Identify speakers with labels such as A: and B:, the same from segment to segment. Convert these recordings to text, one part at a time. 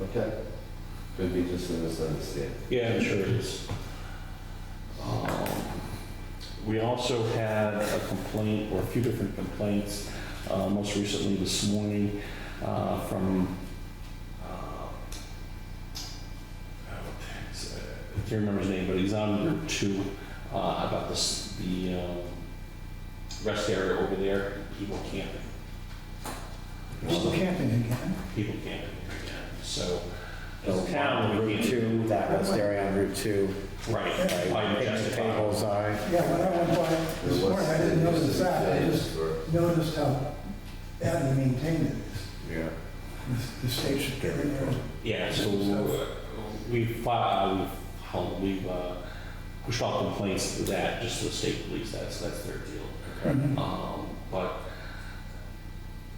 A: Okay.
B: Could be just a misunderstanding.
C: Yeah, I'm sure it is. Um, We also had a complaint, or a few different complaints, uh, most recently this morning, uh, from, uh, I can't remember his name, but he's on Route 2, uh, about this, the um, rest area over there, people camping.
A: People camping again?
C: People camping, so, as
D: So
C: a town, we
D: Route
C: can't.
D: 2, that rest area on Route 2,
C: Right,
D: right?
C: by
D: Picnic
C: Majestic Island.
D: tables are,
A: Yeah, when I went by
B: There
A: this
B: was-
A: morning, I didn't notice that. I just
B: For-
A: noticed how badly maintained it
B: Yeah.
A: is. The- The state should get in there.
C: Yeah, so uh, we've, filed- uh, we've, held- we've uh, pushed off complaints to that, just to the state police, that's, that's their deal.
A: Mhm.
C: Um, But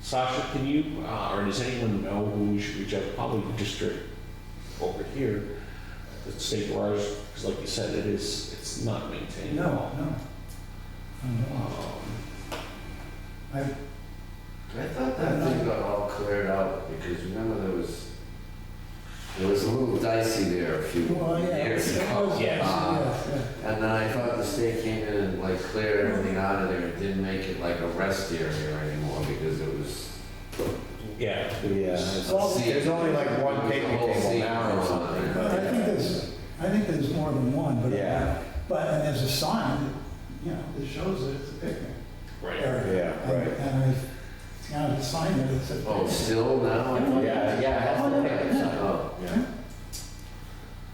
C: Sasha, can you, uh, or does anyone know who we should reach out, probably the district over here, the state garage, because like you said, it is, it's not maintained.
A: No, no. I know.
C: Um,
B: I thought that thing got all cleared out because remember there was, it was a little dicey there a few
A: Well, Oh, yeah. it
B: years
A: was-
B: ago.
C: yes.
B: Uh,
A: yes, yeah.
B: And then I thought the state came in and like cleared everything out of there. It didn't make it like a rest area anymore because it was.
C: Yeah,
D: yeah. There's only like one picnic table now or something,
A: But I think there's, I think there's more than one, but.
D: Yeah.
A: But, and there's a sign, that, you know, that shows that it's a picnic
C: right.
A: area.
D: Yeah, right.
A: And I, you know, the sign there that said.
B: Oh, still now? Oh, I thought-
D: Yeah,
B: Yeah, I have to pick it up.
D: Yeah.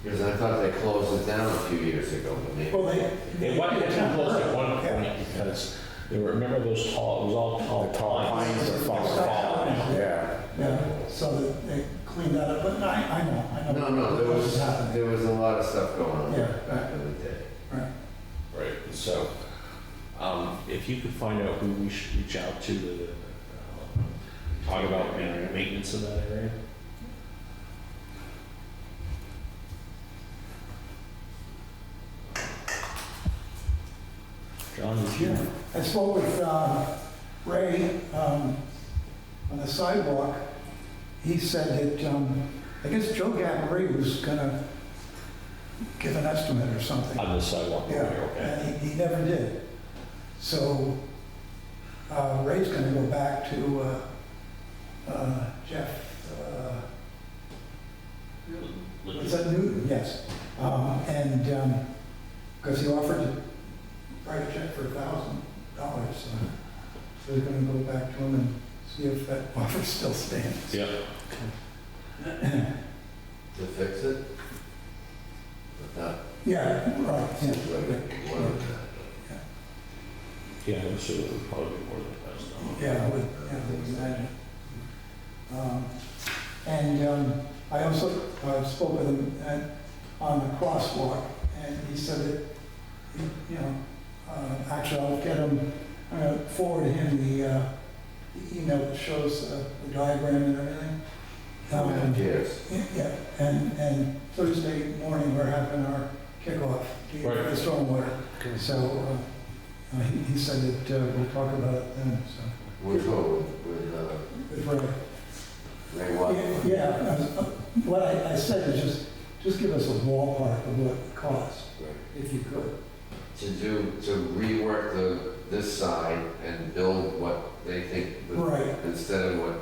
B: Because I thought they closed it down a few years ago, but maybe.
A: Well, they.
C: They wanted to close at one point because there were, remember those tall, it was all tall
D: The tall pines are falling.
C: Falling.
D: Yeah,
A: Yeah, so that they cleaned that up, but I, I know, I know.
B: No, no, there was,
A: happening.
B: there was a lot of stuff going on
A: Yeah.
B: back in the day.
A: Right.
C: Right, and so, um, if you could find out who we should reach out to to, uh, talk about ma- maintenance of that area. John, is you?
A: Yeah, I spoke with um, Ray um, on the sidewalk. He said that, um, I guess Joe Gabri was gonna give an estimate or something.
C: On the sidewalk over
A: Yeah,
C: here, okay?
A: and he, he never did. So uh, Ray's gonna go back to uh, uh, Jeff, uh,
C: Look-
A: Was that Newton? Yes. Um, And, because he offered to write a check for a thousand dollars, so so they're gonna go back to him and see if that offer still stands.
C: Yeah,
B: To fix it? But that,
A: Yeah, right, yeah.
B: seems like it wasn't that.
C: yeah, I'm sure it would probably be more than a thousand dollars.
A: Yeah, I would, yeah, I would imagine. Um, And um, I also uh, spoke with him at- on the crosswalk, and he said that, he- you know, uh, actually, I'll get him, I'm gonna forward him the uh, the email that shows uh, the diagram and everything.
B: How many
A: Um,
B: years?
A: yeah, Yeah, and, and Thursday morning, we're having our kickoff, the
C: Right.
A: the stormwater. So uh, uh, he he said that uh, we'll talk about it then, so.
B: Which one, with, with, uh,
A: Right.
B: Ray Watt?
A: Yeah, I was- uh, what I, I said is just, just give us a ballpark of what it costs, if you could.
B: To do, to rework the, this side and build what they think, would-
A: Right.
B: instead of what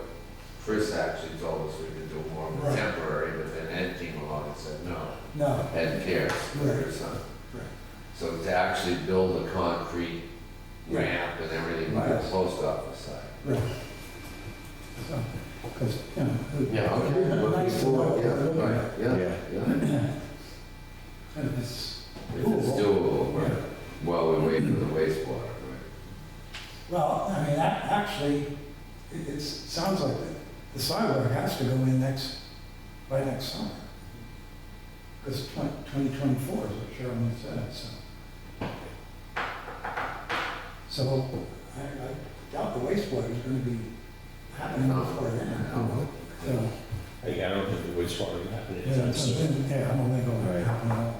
B: Chris actually told us we could do more of a
A: Right.
B: temporary, but then Ed came along and said, no.
A: No,
B: and cares for her son.
A: Right.
B: So to actually build a concrete
A: Yeah.
B: ramp and everything by the
A: Yes.
B: post office side.
A: right. So, because, you know. it would-
B: Yeah,
A: it would
B: okay.
A: be
B: looking
A: Nice to know.
B: forward,
A: what we're
B: Yeah,
A: looking
B: right,
A: at.
B: yeah,
D: yeah.
B: yeah.
A: And it's-
B: If it's doable, right, while we wait for the wastewater, right?
A: Well, I mean, that, actually, it, it's, sounds like the- the sidewalk has to go in next, by next summer. Because twenty twenty-four is what Sherwin said, so. So I, I doubt the wastewater is gonna be happening before then. So,
C: I I don't think the wastewater would happen
A: yeah,
C: anytime
A: it's-
C: soon.
A: yeah, I don't think it'll
D: Right.
A: happen at all. oh,